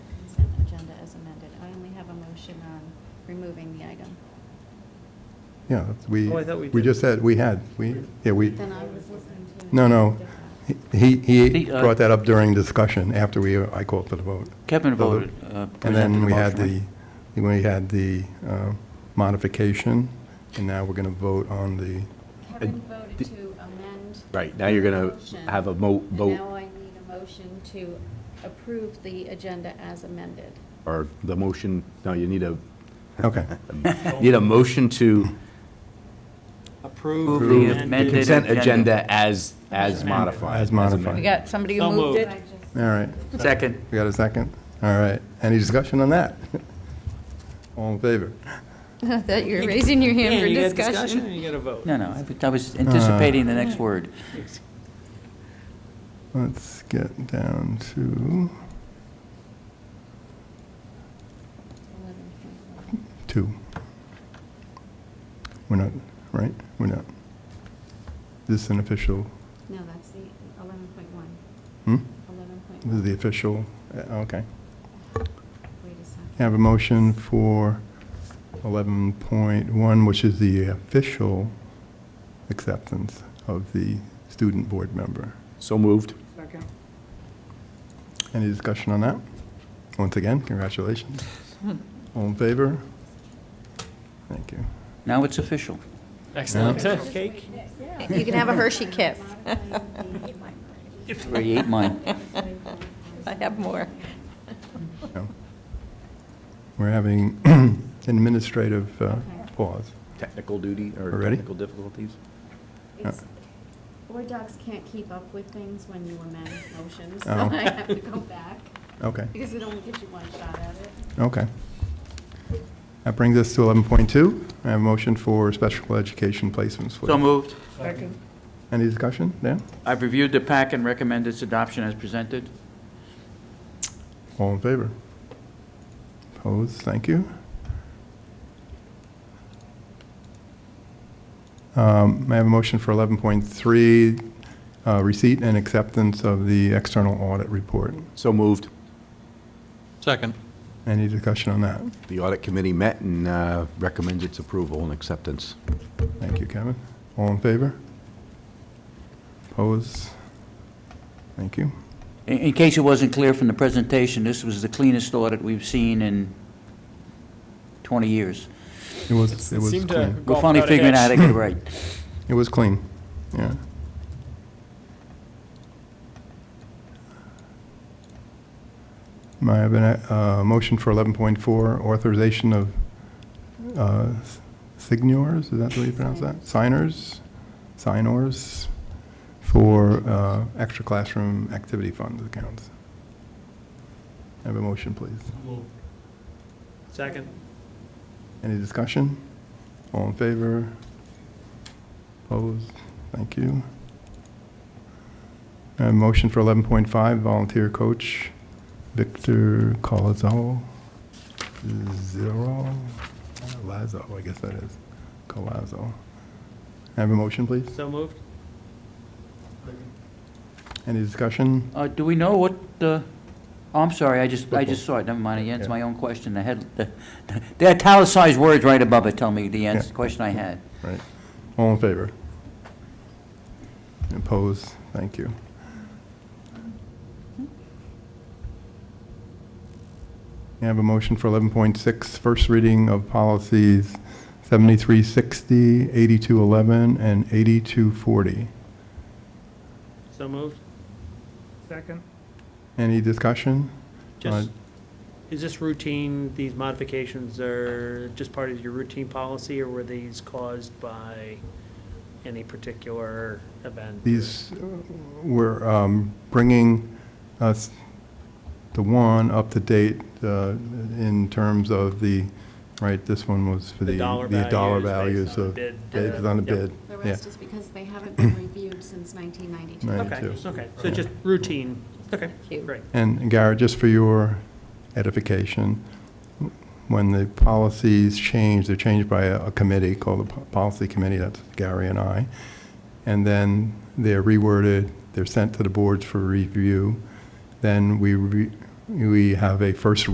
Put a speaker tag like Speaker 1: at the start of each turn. Speaker 1: action on removing the item.
Speaker 2: Yeah, we,
Speaker 3: Oh, I thought we
Speaker 2: we
Speaker 3: did.
Speaker 2: just had, we had, we, yeah, we,
Speaker 1: Then I was listening to.
Speaker 2: no, no. He, he
Speaker 4: The, uh,
Speaker 2: brought that up during discussion after we, uh, I called for the vote.
Speaker 4: Kevin
Speaker 2: The-
Speaker 4: voted, uh,
Speaker 2: And
Speaker 4: presented
Speaker 2: then
Speaker 4: the
Speaker 2: we had the,
Speaker 4: motion,
Speaker 2: we had the uh, modification, and now we're going to vote on the,
Speaker 1: Kevin voted to amend.
Speaker 5: Right, now you're gonna
Speaker 1: Motion.
Speaker 5: have a mo,
Speaker 1: And now
Speaker 5: vote,
Speaker 1: I need a motion to approve the agenda as amended.
Speaker 5: or the motion, no, you need a,
Speaker 2: okay.
Speaker 5: need a motion to
Speaker 3: Approve.
Speaker 4: Approve the
Speaker 5: the
Speaker 4: amended
Speaker 5: consent
Speaker 4: agenda.
Speaker 5: agenda as, as modified.
Speaker 2: As modified.
Speaker 6: We got somebody who
Speaker 3: So moved.
Speaker 6: moved it.
Speaker 2: All right.
Speaker 4: Second.
Speaker 2: We got a second? All right. Any discussion on that? All in favor?
Speaker 6: That you're raising your
Speaker 3: Yeah, you got and You got a vote.
Speaker 4: No, no, I was- I was anticipating the
Speaker 3: Uh.
Speaker 4: next word.
Speaker 2: Let's get down to two. We're not, right? We're not. This is an official,
Speaker 1: No, that's the 11.1,
Speaker 2: hmm?
Speaker 1: 11.1.
Speaker 2: This is the official, uh, okay.
Speaker 1: Wait a second.
Speaker 2: Have a motion for 11.1, which is the official acceptance of the student board member.
Speaker 5: So moved.
Speaker 2: Any discussion on that? Once again, congratulations. All in favor? Thank you.
Speaker 4: Now it's official.
Speaker 3: Excellent.
Speaker 2: Yeah.
Speaker 3: Cake.
Speaker 6: You can have a Hershey kiss.
Speaker 4: Already ate mine.
Speaker 6: I have more.
Speaker 2: No. We're having administrative uh, pause.
Speaker 5: Technical duty or
Speaker 2: We're ready?
Speaker 5: technical difficulties?
Speaker 2: uh,
Speaker 1: It's- Board docs can't keep up with things when you amend motions, so
Speaker 2: Oh.
Speaker 1: I have to go back,
Speaker 2: Okay,
Speaker 1: because it only gives you one shot at it.
Speaker 2: okay. That brings us to 11.2. I have a motion for special education placements.
Speaker 4: So moved.
Speaker 2: Any discussion? Dan?
Speaker 4: I've reviewed the pack and recommend its adoption as presented.
Speaker 2: All in favor? Opposed? Thank you. Um, May I have a motion for 11.3, uh, receipt and acceptance of the external audit report?
Speaker 5: So moved.
Speaker 7: Second.
Speaker 2: Any discussion on that?
Speaker 5: The audit committee met and uh, recommends its approval and acceptance.
Speaker 2: Thank you, Kevin. All in favor? Opposed? Thank you.
Speaker 4: In- In case it wasn't clear from the presentation, this was the cleanest audit we've seen in 20 years.
Speaker 2: It was, it was
Speaker 3: Seemed to
Speaker 2: clean.
Speaker 4: We're
Speaker 3: golf
Speaker 4: finally
Speaker 3: without a
Speaker 4: figuring out how
Speaker 3: hitch.
Speaker 4: to get it right.
Speaker 2: It was clean, yeah. May I have a uh, motion for 11.4, authorization of uh, s- signors, is that the way you pronounce that? Signers, signors for uh, extra classroom activity fund accounts. Have a motion, please.
Speaker 3: Second.
Speaker 2: Any discussion? All in favor? Opposed? Thank you. Uh, Motion for 11.5, volunteer coach Victor Colazzo. Zero, Lazo, I guess that is, Colazzo. Have a motion, please?
Speaker 3: So moved.
Speaker 2: Any discussion?
Speaker 4: Uh, Do we know what, uh, oh, I'm sorry, I just, I just saw it, never mind, again, it's my own question, the head, the the italicized words right above it tell me the answer,
Speaker 2: Yeah.
Speaker 4: question I had.
Speaker 2: Right. All in favor? Opposed? Thank you. We have a motion for 11.6, first reading of policies 7360, 8211, and 8240.
Speaker 3: So moved. Second.
Speaker 2: Any discussion?
Speaker 3: Just,
Speaker 2: Uh,
Speaker 3: is this routine, these modifications are just part of your routine policy, or were these caused by any particular event? or-
Speaker 2: These were um, bringing us, the one up to date uh, in terms of the, right, this one was for the.
Speaker 3: The dollar values
Speaker 2: values
Speaker 3: based on
Speaker 2: of
Speaker 3: the bid,
Speaker 2: Based
Speaker 3: uh,
Speaker 2: on the
Speaker 3: yep.
Speaker 2: bid,
Speaker 1: The
Speaker 2: yeah.
Speaker 1: rest is because they haven't been reviewed since 1992.
Speaker 2: Right.
Speaker 3: Okay,
Speaker 2: too.
Speaker 3: okay, so just routine, okay,
Speaker 6: you.
Speaker 3: great.
Speaker 2: And Garrett, just for your edification, when the policies change, they're changed by a a committee called the Po- Policy Committee, that's Gary and I, and then they're reworded, they're sent to the boards for review, then we, re- we have a first